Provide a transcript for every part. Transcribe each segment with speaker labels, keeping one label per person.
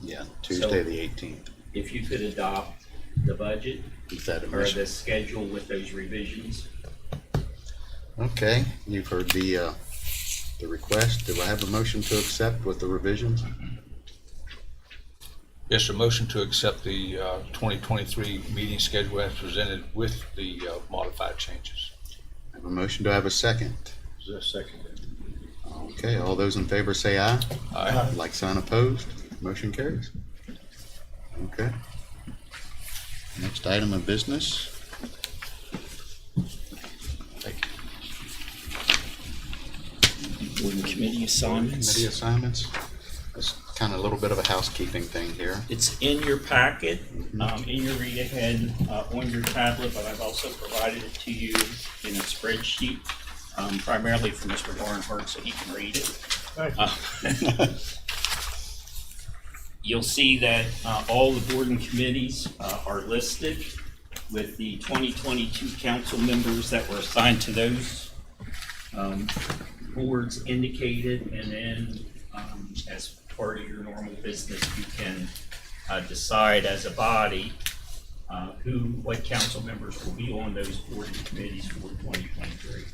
Speaker 1: Yeah, Tuesday, the eighteenth,
Speaker 2: If you could adopt the budget
Speaker 1: is that a
Speaker 2: or
Speaker 1: mission?
Speaker 2: the schedule with those revisions,
Speaker 1: Okay, you've heard the, uh, the request. Do I have a motion to accept with the revisions?
Speaker 3: Yes, a motion to accept the uh, 2023 meeting schedule as presented with the uh, modified changes.
Speaker 1: I have a motion, do I have a second?
Speaker 3: Is there a second?
Speaker 1: Okay, all those in favor say aye.
Speaker 3: Aye.
Speaker 1: Like sign opposed, motion carries. Okay. Next item of business,
Speaker 3: Thank you.
Speaker 4: Board committee
Speaker 1: committee
Speaker 4: assignments.
Speaker 1: assignments. It's kind of a little bit of a housekeeping thing here.
Speaker 4: It's in your packet, um, in your read ahead, uh, on your tablet, but I've also provided it to you in a spreadsheet, um, primarily for Mr. Barnhart, so he can read it. Uh, You'll see that, uh, all the board and committees, uh, are listed with the twenty twenty-two council members that were assigned to those, um, boards indicated, and then, um, as part of your normal business, you can, uh, decide as a body, uh, who, what council members will be on those board and committees for twenty twenty-three.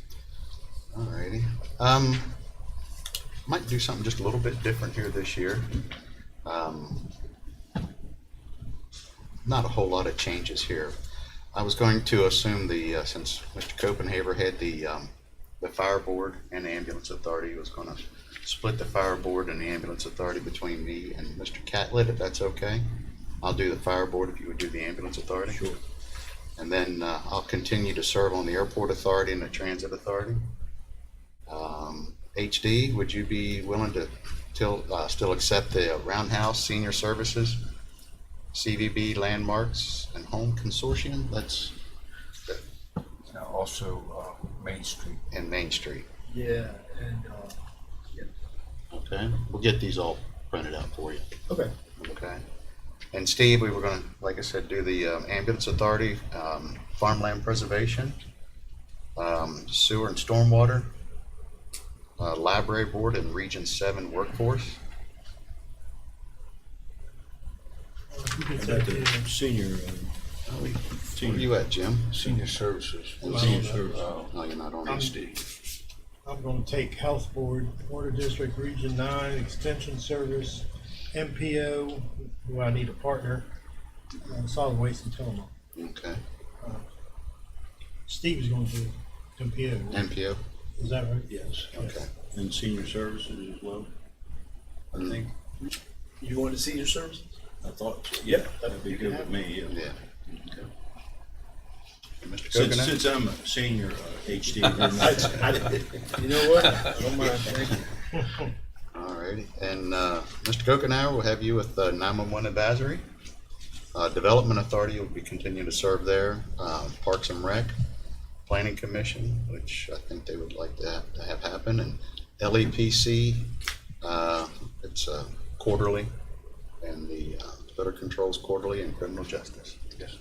Speaker 1: Alrighty. Um, might do something just a little bit different here this year. Um, Not a whole lot of changes here. I was going to assume the, uh, since Mr. Copenhaver had the, um, the fire board and the ambulance authority, he was gonna split the fire board and the ambulance authority between me and Mr. Catlett, if that's okay. I'll do the fire board if you would do the ambulance authority. Sure. And then, uh, I'll continue to serve on the airport authority and the transit authority. Um, HD, would you be willing to till, uh, still accept the Roundhouse Senior Services, CVB Landmarks and Home Consortium? That's
Speaker 3: Now, Also, uh, Main Street.
Speaker 1: in Main Street.
Speaker 5: Yeah, and, uh,
Speaker 1: Okay, we'll get these all printed out for you.
Speaker 5: okay,
Speaker 1: Okay. And Steve, we were gonna, like I said, do the um, ambulance authority, um, farmland preservation, um, sewer and stormwater, uh, library board and region seven workforce.
Speaker 6: Senior,
Speaker 1: Where you at, Jim?
Speaker 3: Senior Services.
Speaker 1: Well,
Speaker 3: Senior
Speaker 5: uh,
Speaker 3: Services.
Speaker 1: No, Oh, you're not on
Speaker 3: Uh,
Speaker 1: it.
Speaker 3: SD.
Speaker 5: I'm gonna take Health Board, Water District, Region Nine, Extension Service, MPO, who I need a partner, uh, Solid Waste and Tillamook.
Speaker 1: Okay,
Speaker 5: Steve's gonna do MPO,
Speaker 1: MPO,
Speaker 5: is that right?
Speaker 6: yes,
Speaker 1: okay.
Speaker 6: and senior services as well. I think,
Speaker 7: You want to see your services?
Speaker 6: I thought, so. yeah, that'd be good with me, yeah.
Speaker 1: Yeah. And Mr.
Speaker 6: Since,
Speaker 1: Coconut?
Speaker 6: since I'm a senior uh, HD, I'm not-
Speaker 7: You know what? I don't mind, thank you.
Speaker 1: Alrighty, and, uh, Mr. Coconut, we'll have you with, uh, nine-one-one advisory. Uh, Development Authority, you'll be continuing to serve there, uh, Parks and Rec, Planning Commission, which I think they would like to have, to have happen, and LEPC, uh, it's, uh, quarterly, and the, uh, Better Controls Quarterly and Criminal Justice. Yes.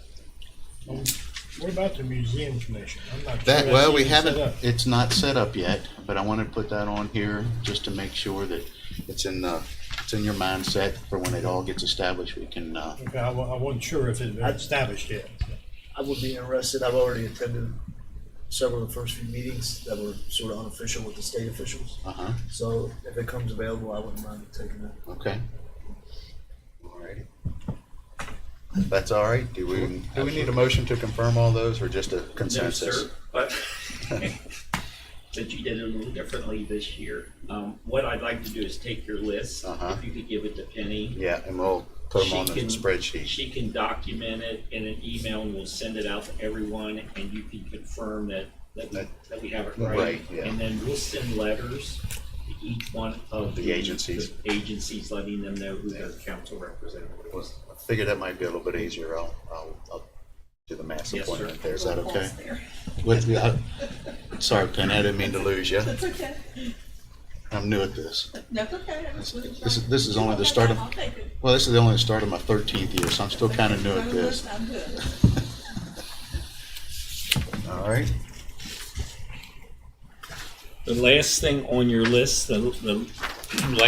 Speaker 5: What about the Museum Commission? I'm not sure
Speaker 1: That,
Speaker 5: that's
Speaker 1: well, we
Speaker 5: even set
Speaker 1: haven't,
Speaker 5: up.
Speaker 1: it's not set up yet, but I want to put that on here just to make sure that it's in the, it's in your mindset for when it all gets established, we can, uh,
Speaker 5: Okay, I wa- I wasn't sure if it was established yet.
Speaker 7: I would be interested, I've already attended several of the first few meetings that were sort of unofficial with the state officials.
Speaker 1: uh-huh,
Speaker 7: So if it comes available, I wouldn't mind taking it.
Speaker 1: okay. Alrighty. If That's all right, do we, do we need a motion to confirm all those or just a
Speaker 4: No,
Speaker 1: consensus?
Speaker 4: sir, But but you did it a little differently this year. Um, What I'd like to do is take your list,
Speaker 1: Uh-huh.
Speaker 4: if you could give it to Penny.
Speaker 1: Yeah, and we'll put them
Speaker 4: She
Speaker 1: on the
Speaker 4: can-
Speaker 1: spreadsheet.
Speaker 4: She can document it in an email and we'll send it out to everyone and you can confirm that, that, we-
Speaker 1: That-
Speaker 4: that we have it
Speaker 1: right,
Speaker 4: right.
Speaker 1: yeah.
Speaker 4: And then we'll send letters to each one of
Speaker 1: The
Speaker 4: the.
Speaker 1: agencies.
Speaker 4: the Agencies letting them know who their council representative was.
Speaker 1: I Figure that might be a little bit easier, I'll, I'll, I'll do the mass
Speaker 4: Yes, sir.
Speaker 1: appointment there, is that okay? With, uh, sorry, Penny, I didn't mean to lose you,
Speaker 8: That's okay.
Speaker 1: I'm new at this.
Speaker 8: That's okay. I was really
Speaker 1: This is,
Speaker 8: trying-
Speaker 1: this is only the start of,
Speaker 8: I'll take it.
Speaker 1: well, this is the only start of my thirteenth year, so I'm still kind of new
Speaker 8: I'm
Speaker 1: at this.
Speaker 8: good, I'm good.
Speaker 1: All right.
Speaker 4: The last thing on your list, the, the